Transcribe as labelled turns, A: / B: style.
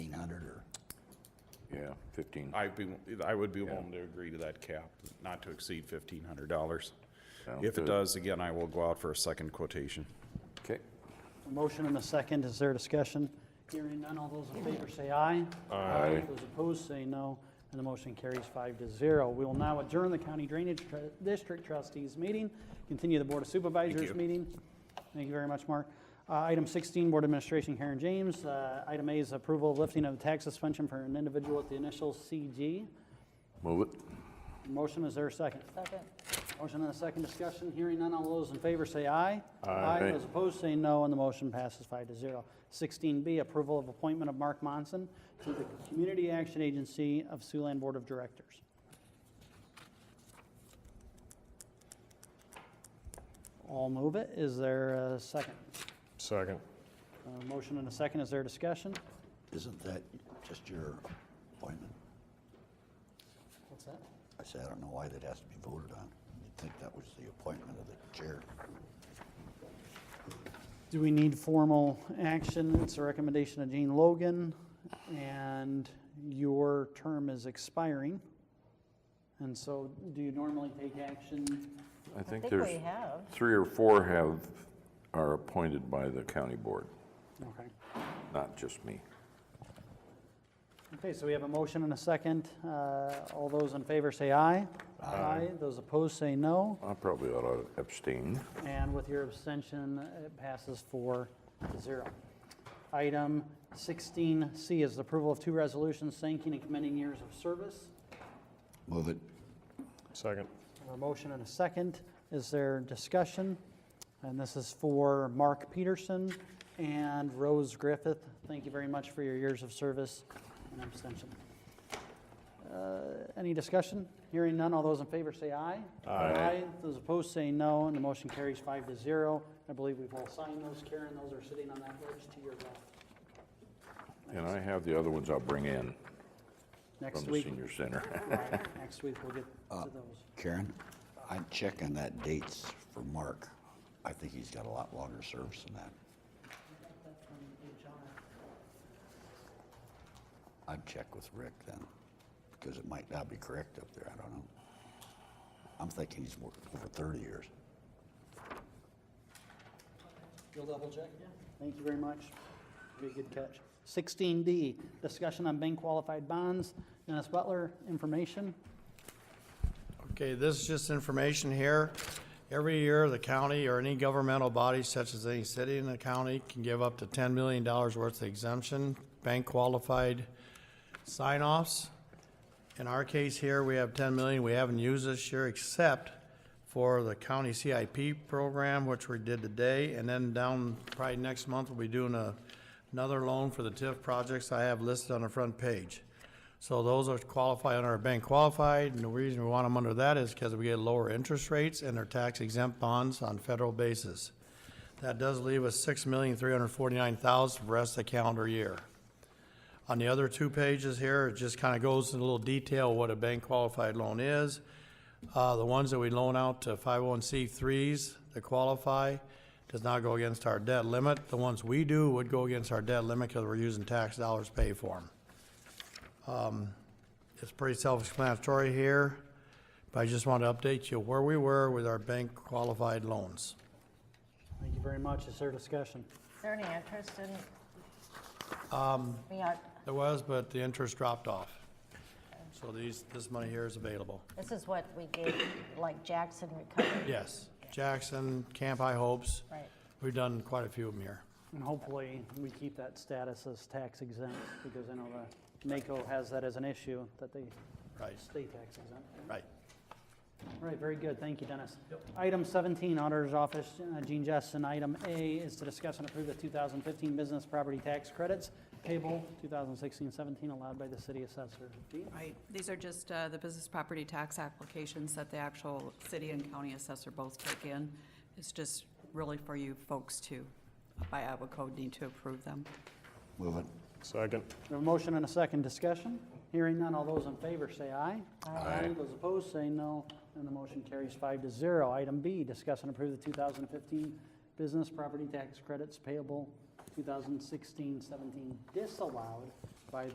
A: Yeah, fifteen.
B: I'd be, I would be willing to agree to that cap, not to exceed fifteen hundred dollars.
A: Sounds
B: If it
A: good.
B: does, again, I will go out for a second quotation.
A: Okay,
C: A Motion and a second, is there discussion? Hearing none, all those in favor say aye.
A: Aye.
C: Those opposed say no, and the motion carries five to zero. We will now adjourn the County Drainage Tr- District Trustees Meeting, continue the Board of Supervisors
B: you.
C: Meeting. Thank you very much, Mark. Uh, Item 16, Board Administration, Karen James. Uh, Item A is approval of lifting of tax suspension for an individual with the initial CG.
A: move it.
C: Motion, is there a second?
D: Second.
C: Motion and a second discussion, hearing none, all those in favor say aye.
A: Aye.
C: Those opposed say no, and the motion passes five to zero. Sixteen B, approval of appointment of Mark Monson to the Community Action Agency of Siouxland Board of Directors. I'll move it, is there a second?
E: Second.
C: Uh, Motion and a second, is there discussion?
F: Isn't that just your appointment?
C: What's that?
F: I say, I don't know why that has to be voted on. You'd think that was the appointment of the chair.
C: Do we need formal action? It's a recommendation of Gene Logan, and your term is expiring. And so, do you normally take action?
A: I
D: I
A: think
D: think we
A: there's,
D: have.
A: three or four have, are appointed by the county board,
C: Okay.
A: not just me.
C: Okay, so we have a motion and a second. Uh, All those in favor say aye. Aye. Those opposed say no.
A: I probably ought to abstain.
C: And with your abstention, it passes four to zero. Item 16C is the approval of two resolutions thanking and commending years of service.
F: Move it.
E: Second.
C: A motion and a second. Is there discussion? And this is for Mark Peterson and Rose Griffith. Thank you very much for your years of service and abstention. Uh, Any discussion? Hearing none, all those in favor say aye. Aye. Those opposed say no, and the motion carries five to zero. I believe we've all signed those, Karen, those are sitting on that ledge to your left.
A: And I have the other ones I'll bring in from
C: Next
A: the
C: week,
A: senior center.
C: next week we'll get to those.
F: Karen, I'm checking that dates for Mark. I think he's got a lot longer service than that. I'd check with Rick then, because it might not be correct up there. I don't know. I'm thinking he's more- over 30 years.
C: You'll double check? Thank you very much. Be a good catch. Sixteen D, discussion on bank qualified bonds. Dennis Butler, information.
G: Okay, this is just information here. Every year, the county or any governmental body such as any city in the county can give up to ten million dollars worth of exemption, bank qualified sign-offs. In our case here, we have ten million we haven't used this year except for the county CIP program, which we did today, and then down probably next month, we'll be doing a, another loan for the TIF projects I have listed on the front page. So those are qualified under our bank qualified, and the reason we want them under that is because we get lower interest rates and they're tax exempt bonds on federal basis. That does leave us six million, three hundred forty-nine thousand for rest of the calendar year. On the other two pages here, it just kind of goes in a little detail what a bank qualified loan is. Uh, the ones that we loan out to 501c3s to qualify does not go against our debt limit. The ones we do would go against our debt limit because we're using tax dollars to pay for them. It's pretty self-explanatory here, but I just want to update you where we were with our bank qualified loans.
C: Thank you very much. Is there discussion?
D: Is there any interest in? We got,
G: There was, but the interest dropped off. So these, this money here is available.
D: this is what we gave, like Jackson recovery,
G: Yes, Jackson, Camp High Hopes,
D: right?
G: we've done quite a few of them here.
C: And hopefully, we keep that status as tax exempt, because I know the Mako has that as an issue, that they
G: Right,
C: stay tax exempt.
G: right.
C: All right, very good. Thank you, Dennis. Item 17, Auditor's Office, uh, Gene Justin. Item A is to discuss and approve the 2015 business property tax credits payable 2016-17 allowed by the city assessor. Gene?
H: Right, these are just uh, the business property tax applications that the actual city and county assessor both take in. It's just really for you folks to, by Iowa code, need to approve them.
F: Move it.
E: Second.
C: We have a motion and a second discussion. Hearing none, all those in favor say aye. Aye. Those opposed say no, and the motion carries five to zero. Item B, discuss and approve the 2015 business property tax credits payable 2016-17 disallowed